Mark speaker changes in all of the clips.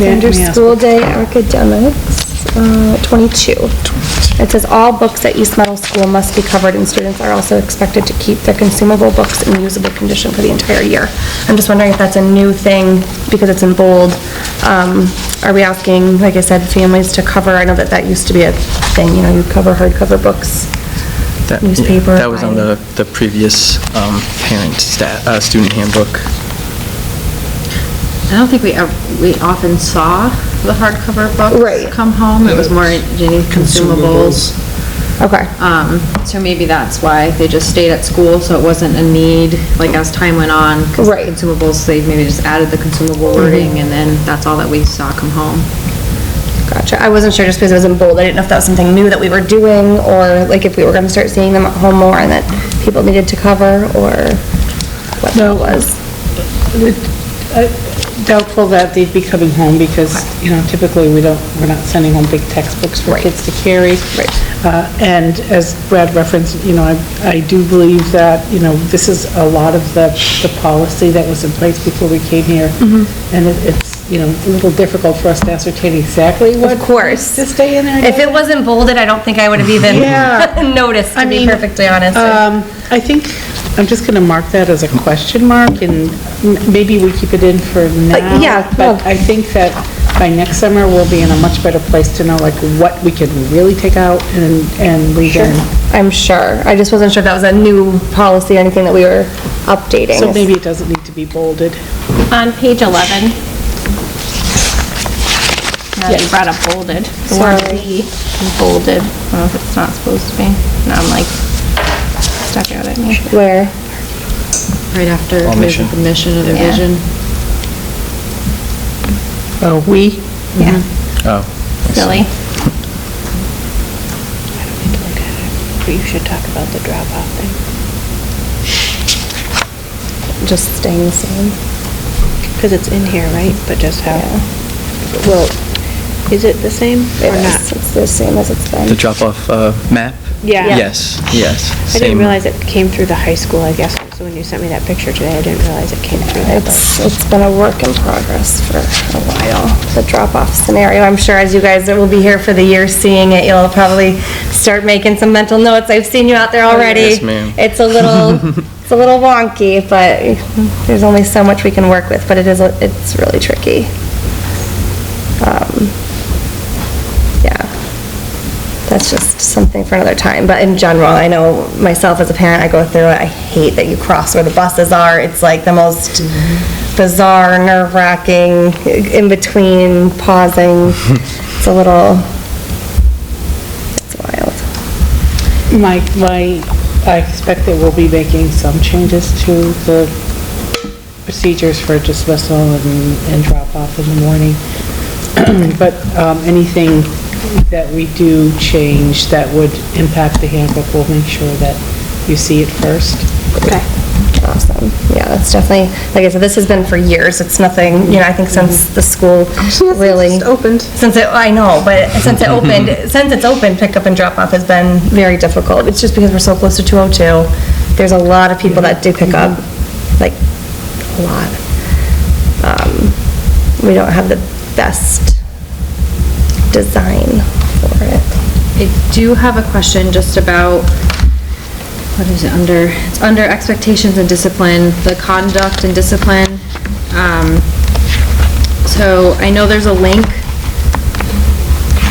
Speaker 1: Under
Speaker 2: me ask
Speaker 1: school day academics, uh, 22. It says, "All books at East Meadow School must be covered, and students are also expected to keep their consumable books in usable condition for the entire year." I'm just wondering if that's a new thing, because it's in bold. Um, Are we asking, like I said, families to cover, I know that that used to be a thing, you know, you cover hardcover books,
Speaker 3: That- yeah,
Speaker 1: newspaper.
Speaker 3: That was on the, the previous um, parent sta uh, student handbook.
Speaker 4: I don't think we, ev- we often saw the hardcover books.
Speaker 1: Right.
Speaker 4: Come home, it was more any consumables.
Speaker 1: Okay,
Speaker 4: Um, so maybe that's why they just stayed at school, so it wasn't a need, like as time went on. 'cause the
Speaker 1: Right. Mm-hmm.
Speaker 4: Consumables, they maybe just added the consumable wording and then that's all that we saw come home.
Speaker 1: gotcha. I wasn't sure just because it was in bold, I didn't know if that was something new that we were doing, or like if we were going to start seeing them at home more and that people needed to cover, or what that was.
Speaker 2: Doubtful that they'd be coming home because, you know, typically we don't, we're not sending home big textbooks for kids to carry.
Speaker 1: Right.
Speaker 2: Uh, And as Brad referenced, you know, I, I do believe that, you know, this is a lot of the, the policy that was in place before we came here.
Speaker 1: Mm-hmm.
Speaker 2: And it- it's, you know, a little difficult for us to ascertain exactly what.
Speaker 1: Of course.
Speaker 2: To stay in there. and
Speaker 1: If it wasn't bolded, I don't think I would have
Speaker 2: Yeah.
Speaker 1: even noticed,
Speaker 2: I
Speaker 1: to be
Speaker 2: mean,
Speaker 1: perfectly honest.
Speaker 2: Um, I think, I'm just going to mark that as a question mark, and m- maybe we keep it in for now.
Speaker 1: yeah, well-
Speaker 2: But I think that by next summer, we'll be in a much better place to know, like, what we can really take out and, and leave in.
Speaker 1: I'm sure. I just wasn't sure if that was a new policy or anything that we were updating.
Speaker 2: So maybe it doesn't need to be bolded.
Speaker 5: On page 11. Now that you brought up bolded. The word
Speaker 1: Sorry.
Speaker 5: "the" is bolded. I don't know if it's not supposed to be. Now I'm like, stuck out at me.
Speaker 1: Where?
Speaker 4: Right after
Speaker 3: All
Speaker 4: there's
Speaker 3: mission.
Speaker 4: the mission of the
Speaker 5: Yeah.
Speaker 4: vision.
Speaker 2: Oh, we?
Speaker 5: Yeah,
Speaker 3: Oh.
Speaker 5: silly.
Speaker 2: You should talk about the dropout thing.
Speaker 1: Just staying the same.
Speaker 6: Because it's in here, right? But just how,
Speaker 1: Yeah.
Speaker 6: well, is it the same
Speaker 1: It
Speaker 6: or
Speaker 1: is.
Speaker 6: not?
Speaker 1: It's the same as it's been.
Speaker 3: The drop-off uh, map?
Speaker 6: Yeah. Yeah.
Speaker 3: Yes, yes.
Speaker 6: I didn't
Speaker 3: same.
Speaker 6: realize it came through the high school, I guess. So when you sent me that picture today, I didn't realize it came through that.
Speaker 1: It's, it's been a work in progress for a while, the drop-off scenario. I'm sure as you guys that will be here for the year seeing it, you'll probably start making some mental notes. I've seen you out there already.
Speaker 3: Yes, ma'am.
Speaker 1: It's a little, it's a little wonky, but there's only so much we can work with, but it is, a- it's really tricky. Um, Yeah. That's just something for another time, but in general, I know myself as a parent, I go through it, I hate that you cross where the buses are, it's like the most
Speaker 3: Mm-hmm.
Speaker 1: bizarre, nerve-wracking, in between, pausing, it's a little, it's wild.
Speaker 2: My, my, I expect that we'll be making some changes to the procedures for dismissal and, and drop-off in the morning. But, um, anything that we do change that would impact the handbook, we'll make sure that you see it first.
Speaker 1: Awesome, yeah, that's definitely, like I said, this has been for years, it's nothing, you know, I think since the school really. opened. Since it, I know, but since it opened, since it's opened, pickup and drop off has been very difficult. It's just because we're so close to 202, there's a lot of people that do pick up, like, a lot. Um, We don't have the best design for it.
Speaker 4: I do have a question just about, what is it, under, it's under expectations and discipline, the conduct and discipline. Um, So I know there's a link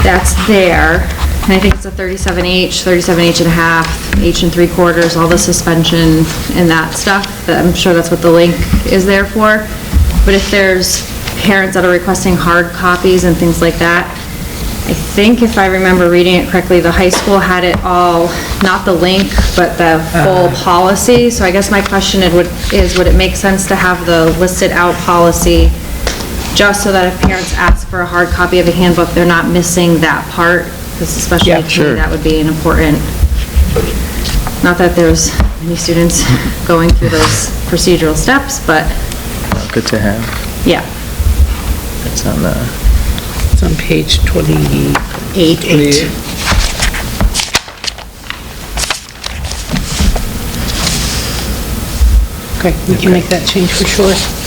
Speaker 4: that's there, and I think it's a 37H, 37H and a half, H and three quarters, all the suspension and that stuff. That- I'm sure that's what the link is there for. But if there's parents that are requesting hard copies and things like that, I think if I remember reading it correctly, the high school had it all, not the link, but the full policy. So I guess my question it would- is, would it make sense to have the listed out policy just so that if parents ask for a hard copy of a handbook, they're not missing that part? Because especially to me, that would be an important, not that there's many students going through those procedural steps, but
Speaker 3: Good to have.
Speaker 4: yeah.
Speaker 3: It's on the,
Speaker 2: It's on page 28. Eight. Okay, we can make that change for sure.